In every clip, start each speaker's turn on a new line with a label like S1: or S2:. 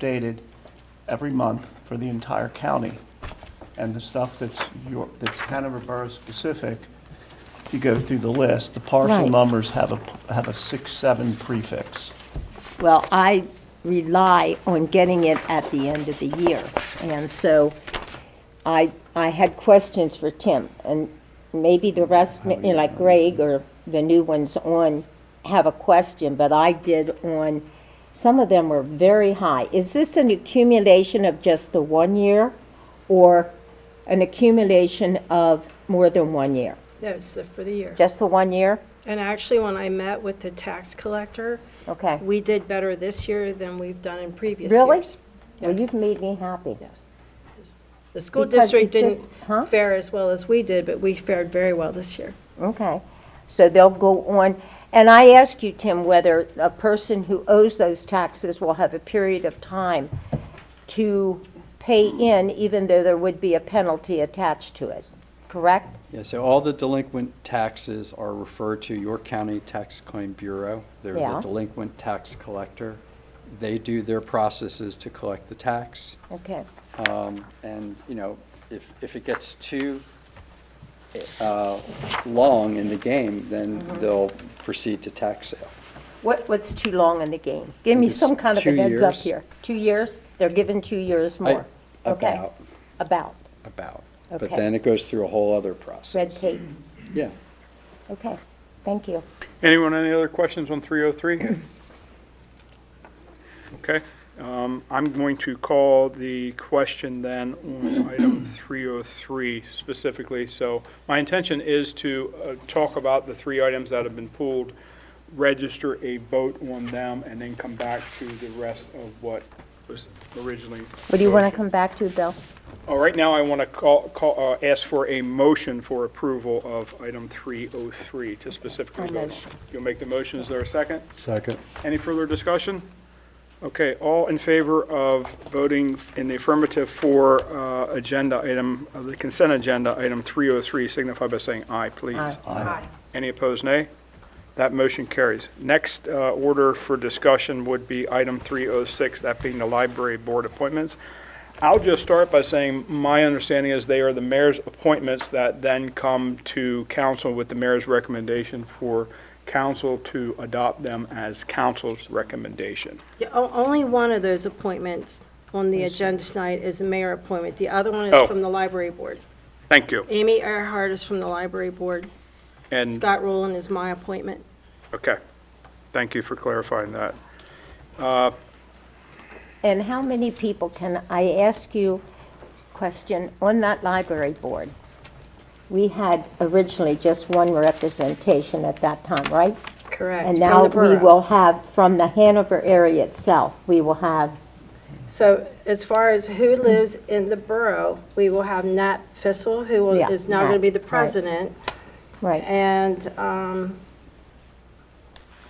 S1: updated every month for the entire county. And the stuff that's your, that's Hanover Borough specific, if you go through the list, the parcel
S2: Right.
S1: numbers have a, have a six, seven prefix.
S2: Well, I rely on getting it at the end of the year, and so I, I had questions for Tim, and maybe the rest, you know, like Greg or the new ones on, have a question, but I did on, some of them were very high. Is this an accumulation of just the one year, or an accumulation of more than one year?
S3: No, it's the- for the year.
S2: Just the one year?
S3: And actually, when I met with the tax collector,
S2: Okay.
S3: we did better this year than we've done in previous years.
S2: Really? Well,
S3: Yes.
S2: you've made me happy.
S3: Yes. The school
S2: Because
S3: district
S2: it just-
S3: didn't
S2: huh?
S3: fare as well as we did, but we fared very well this year.
S2: Okay, so they'll go on, and I ask you, Tim, whether a person who owes those taxes will have a period of time to pay in, even though there would be a penalty attached to it, correct?
S4: Yeah, so all the delinquent taxes are referred to your county tax claim bureau. They're
S2: Yeah.
S4: the delinquent tax collector. They do their processes to collect the tax.
S2: Okay,
S4: Um, And, you know, if, if it gets too uh, long in the game, then
S2: Mm-hmm.
S4: they'll proceed to tax sale.
S2: what, what's too long in the game? Give me
S4: It's
S2: some kind of a
S4: two
S2: heads up
S4: years.
S2: here. Two years, they're given two years
S4: I-
S2: more? Okay.
S4: About,
S2: About,
S4: about. But
S2: Okay.
S4: then it goes through a whole other process.
S2: red tape,
S4: Yeah.
S2: okay, thank you.
S5: Anyone, any other questions on 303? Okay, um, I'm going to call the question then on item 303 specifically. So my intention is to uh, talk about the three items that have been pulled, register a vote on them, and then come back to the rest of what was originally.
S2: What do you want
S5: motioned.
S2: to come back to, Bill?
S5: Uh, Right now, I want to call, call, uh, ask for a motion for approval of item 303 to specifically
S2: A
S5: vote on.
S2: motion.
S5: You'll make the motion, is there a second?
S6: Second.
S5: Any further discussion? Okay, all in favor of voting in the affirmative for uh, agenda item, uh, the consent agenda, item 303, signify by saying aye, please.
S2: Aye.
S5: Any opposed, nay? That motion carries. Next uh, order for discussion would be item 306, that being the library board appointments. I'll just start by saying, my understanding is they are the mayor's appointments that then come to council with the mayor's recommendation for council to adopt them as council's recommendation.
S3: Yeah, o- Only one of those appointments on the agenda tonight is a mayor appointment. The other one
S5: Oh.
S3: is from the library board.
S5: Thank you.
S3: Amy Earhart is from the library board.
S5: And,
S3: Scott Rowland is my appointment.
S5: okay, thank you for clarifying that.
S2: And how many people, can I ask you a question, on that library board? We had originally just one representation at that time, right?
S3: Correct.
S2: And now we will have, from the Hanover area itself, we will have,
S3: So as far as who lives in the borough, we will have Nat Fissel, who will-
S2: Yeah,
S3: is now going to be the
S2: Nat, right.
S3: president,
S2: right,
S3: and um,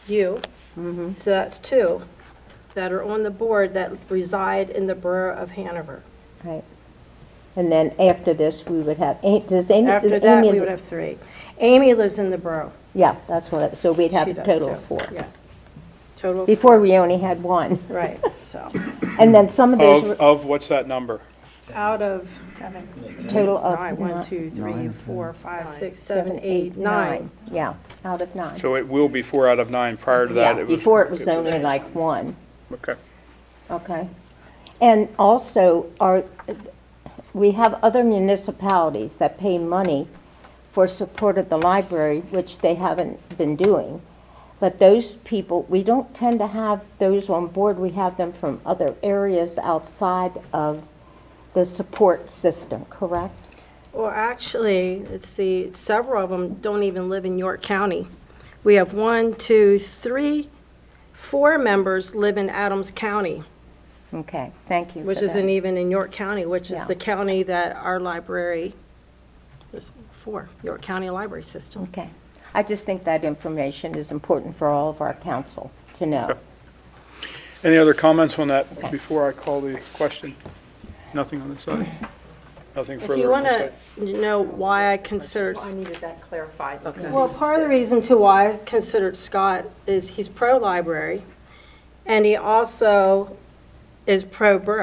S3: you.
S2: Mm-hmm.
S3: So that's two that are on the board that reside in the borough of Hanover.
S2: right. And then after this, we would have, eh, does Amy?
S3: After
S2: does
S3: that,
S2: Amy-
S3: we would have three. Amy lives in the borough.
S2: Yeah, that's what, so we'd have
S3: She
S2: a
S3: does,
S2: total
S3: too.
S2: of four.
S3: Yes. Total, of-
S2: Before, we only had one.
S3: right, so,
S2: And then some of those
S5: Of,
S2: were
S5: of what's that number?
S3: out of
S2: total of.
S7: Nine,
S2: nine-
S7: one, two, three, four, five, six.
S3: six, seven, eight, nine.
S2: Yeah, out of nine.
S5: So it will be four out of nine. Prior to that,
S2: Yeah,
S5: it was.
S2: before it was only like one,
S5: Okay.
S2: okay. And also, are, we have other municipalities that pay money for support of the library, which they haven't been doing. But those people, we don't tend to have those on board, we have them from other areas outside of the support system, correct?
S3: Well, actually, let's see, several of them don't even live in York County. We have one, two, three, four members live in Adams County,
S2: Okay, thank you for
S3: which e-
S2: that.
S3: isn't even in York County, which is
S2: Yeah.
S3: the county that our library is for, York County Library System.
S2: Okay. I just think that information is important for all of our council to know.
S5: Any other comments on that before I call the question? Nothing on this side? Nothing
S3: If you
S5: further on
S3: want
S5: this
S3: to
S5: side?
S3: know why I considered,
S7: I needed that clarified. because
S3: well, part of the reason to why I considered Scott is he's pro-library, and he also is pro-Burke.